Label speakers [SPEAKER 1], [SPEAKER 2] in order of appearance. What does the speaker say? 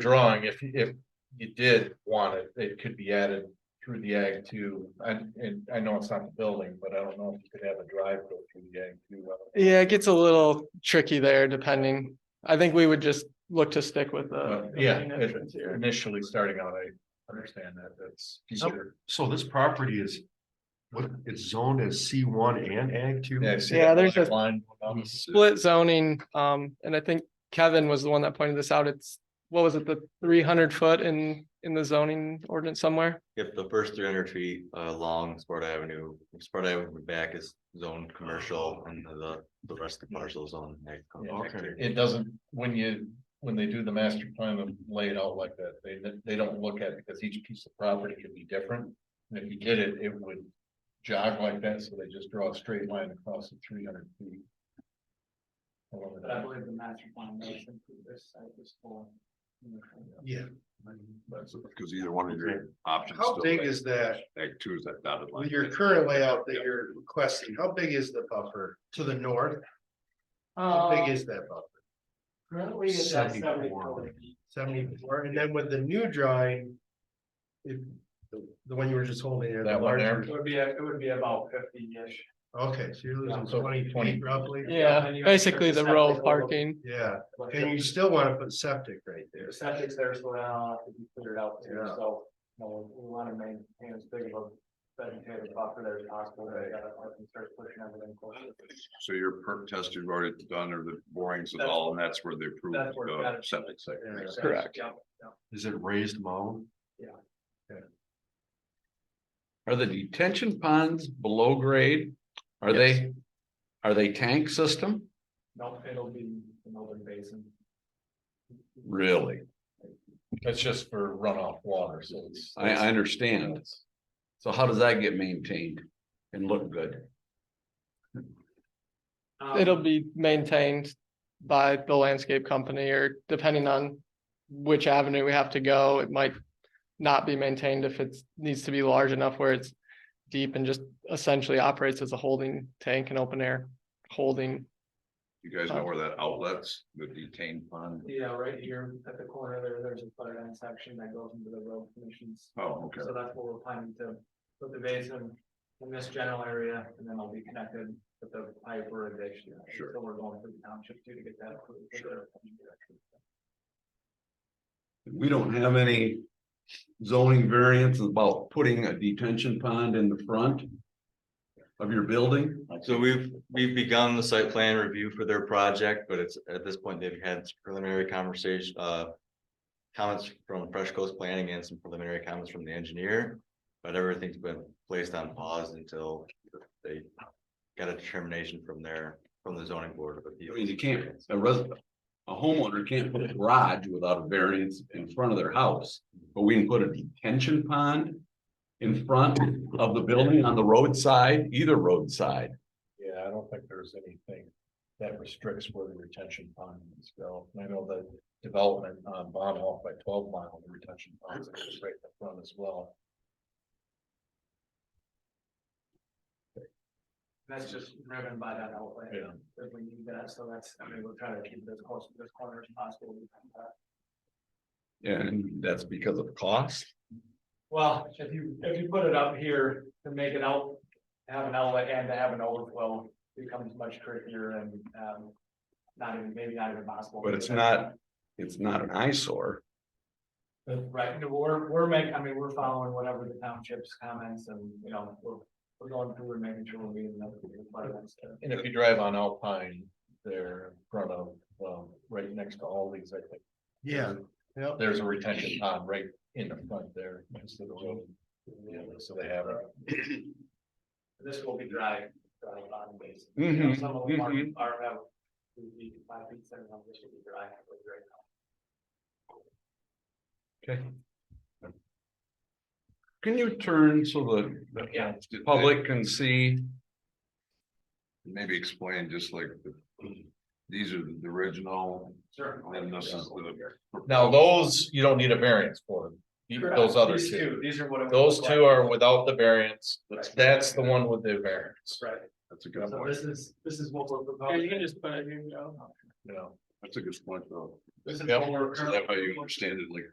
[SPEAKER 1] drawing, if, if you did want it, it could be added through the ag two. And, and I know it's not the building, but I don't know if you could have a drive go through the ag two.
[SPEAKER 2] Yeah, it gets a little tricky there depending. I think we would just look to stick with the.
[SPEAKER 1] But
[SPEAKER 2] the
[SPEAKER 1] Uh, yeah,
[SPEAKER 2] main
[SPEAKER 1] it-
[SPEAKER 2] entrance here.
[SPEAKER 1] initially starting out, I understand that, that's easier.
[SPEAKER 2] Oh,
[SPEAKER 3] So this property is, what, it's zoned as C one and ag two?
[SPEAKER 1] I see
[SPEAKER 2] Yeah,
[SPEAKER 1] that
[SPEAKER 2] there's
[SPEAKER 1] black
[SPEAKER 2] a-
[SPEAKER 1] Line. going up.
[SPEAKER 2] Split zoning, um, and I think Kevin was the one that pointed this out. It's, what was it, the three hundred foot in, in the zoning ordinance somewhere?
[SPEAKER 4] If the first three hundred feet uh along Sparta Avenue, Sparta Avenue back is zoned commercial and the the rest of the parcel is on.
[SPEAKER 3] Okay.
[SPEAKER 1] It doesn't, when you, when they do the master plan and lay it out like that, they, they don't look at it because each piece of property could be different. And if you did it, it would jog like that, so they just draw a straight line across the three hundred feet. However,
[SPEAKER 5] But I
[SPEAKER 1] that-
[SPEAKER 5] believe the master plan does include this site as well.
[SPEAKER 3] Yeah.
[SPEAKER 6] That's because either one of your options.
[SPEAKER 7] How
[SPEAKER 6] still
[SPEAKER 7] big
[SPEAKER 6] ag-
[SPEAKER 7] is that,
[SPEAKER 6] Ag two is that dotted line.
[SPEAKER 7] with your current layout that you're requesting, how big is the buffer to the north? How big is that buffer?
[SPEAKER 5] Uh, Currently it's
[SPEAKER 3] 74.
[SPEAKER 5] at seventy-four.
[SPEAKER 7] Seventy-four, and then with the new drawing. If, the, the one you were just holding there. the
[SPEAKER 1] That one there?
[SPEAKER 7] larger-
[SPEAKER 5] It would be, it would be about fifty-ish.
[SPEAKER 7] Okay, so you're losing
[SPEAKER 1] So
[SPEAKER 7] twenty
[SPEAKER 1] 20.
[SPEAKER 7] feet roughly,
[SPEAKER 2] Yeah,
[SPEAKER 5] and you have
[SPEAKER 2] basically the
[SPEAKER 5] certain
[SPEAKER 2] row
[SPEAKER 5] septic
[SPEAKER 2] parking.
[SPEAKER 7] yeah,
[SPEAKER 5] But
[SPEAKER 7] and you still wanna put septic right there.
[SPEAKER 5] The septic's there, so now have to be cleared out too,
[SPEAKER 7] Yeah.
[SPEAKER 5] so, you know, we wanna maintain as big of a vegetative buffer there as possible. We gotta let them start pushing everything closer.
[SPEAKER 6] So your perk test you've already done or the borings and
[SPEAKER 5] That's-
[SPEAKER 6] all, and that's where they approve
[SPEAKER 5] That's where it's
[SPEAKER 6] the
[SPEAKER 5] gotta be.
[SPEAKER 6] septic site.
[SPEAKER 7] Yeah.
[SPEAKER 5] Makes sense.
[SPEAKER 2] Correct.
[SPEAKER 5] Yep, yep.
[SPEAKER 3] Is it raised mound?
[SPEAKER 8] Are the detention ponds below grade? Are they, are they tank system?
[SPEAKER 5] No, it'll be the northern basin.
[SPEAKER 8] Really?
[SPEAKER 1] That's just for runoff water, so it's.
[SPEAKER 8] I, I understand. So how does that get maintained and look good?
[SPEAKER 5] Um,
[SPEAKER 2] It'll be maintained by the landscape company or depending on which avenue we have to go, it might not be maintained if it's, needs to be large enough where it's deep and just essentially operates as a holding tank and open air holding.
[SPEAKER 6] You guys know where that outlets, the detained pond?
[SPEAKER 5] Yeah, right here at the corner there, there's a flood end section that goes into the road commissions.
[SPEAKER 6] Oh, okay.
[SPEAKER 5] So that's what we're planning to put the basin in this general area and then it'll be connected with the pipe or addition.
[SPEAKER 6] Sure.
[SPEAKER 5] So we're going through the township too to get that approved. Sure.
[SPEAKER 8] We don't have any zoning variance about putting a detention pond in the front of your building?
[SPEAKER 4] So we've, we've begun the site plan review for their project, but it's, at this point, they've had preliminary conversation, uh. Comments from Fresh Coast Planning and some preliminary comments from the engineer, but everything's been placed on pause until they. Got a determination from their, from the zoning board of
[SPEAKER 8] I
[SPEAKER 4] appeals.
[SPEAKER 8] mean, you can't, a resident, a homeowner can't put a garage without a variance in front of their house. But we can put a detention pond in front of the building on the roadside, either roadside.
[SPEAKER 1] Yeah, I don't think there's anything that restricts where the retention ponds go. And I know the development on Bond Off by twelve mile, the retention ponds are just right in the front as well.
[SPEAKER 5] That's just driven by that outlet.
[SPEAKER 1] Yeah.
[SPEAKER 5] If we need that, so that's, I mean, we'll try to keep it as close to this corner as possible.
[SPEAKER 8] And that's because of cost.
[SPEAKER 5] Well, if you, if you put it up here to make it out, have an outlet and to have an overflow becomes much trickier and, um. Not even, maybe not even possible.
[SPEAKER 8] But it's not, it's not an eyesore.
[SPEAKER 5] Right, no, we're, we're making, I mean, we're following whatever the township's comments and, you know, we're, we're going through and making sure we're meeting up with the requirements.
[SPEAKER 1] And if you drive on Alpine, they're in front of, um, right next to all these, I think.
[SPEAKER 7] Yeah, yeah.
[SPEAKER 1] There's a retention pond right in the front there, next to the road. Yeah, so they have it.
[SPEAKER 5] This will be dry, dry bottom basin. You know,
[SPEAKER 8] Mhm,
[SPEAKER 5] Some of them are,
[SPEAKER 8] mhm.
[SPEAKER 1] Mm-hmm.
[SPEAKER 5] are, have, three feet, five feet, seven, of them, this should be dry, but right now.
[SPEAKER 8] Can you turn so the,
[SPEAKER 5] Yeah.
[SPEAKER 8] the public can see?
[SPEAKER 6] Maybe explain just like the, these are the original,
[SPEAKER 5] Sure.
[SPEAKER 6] and this is the.
[SPEAKER 1] Now, those, you don't need a variance for, You-
[SPEAKER 5] Correct.
[SPEAKER 1] those other
[SPEAKER 5] These
[SPEAKER 1] two.
[SPEAKER 5] These are what. it would
[SPEAKER 1] Those
[SPEAKER 5] look
[SPEAKER 1] two
[SPEAKER 5] like.
[SPEAKER 1] are without the variance.
[SPEAKER 5] Right.
[SPEAKER 1] That's the one with the variance,
[SPEAKER 5] Right,
[SPEAKER 6] That's a good
[SPEAKER 5] so
[SPEAKER 6] point.
[SPEAKER 5] this is, this is what we're proposing.
[SPEAKER 2] just put it here,
[SPEAKER 1] you know.
[SPEAKER 6] That's a good point, though.
[SPEAKER 8] Is that how you understand it, like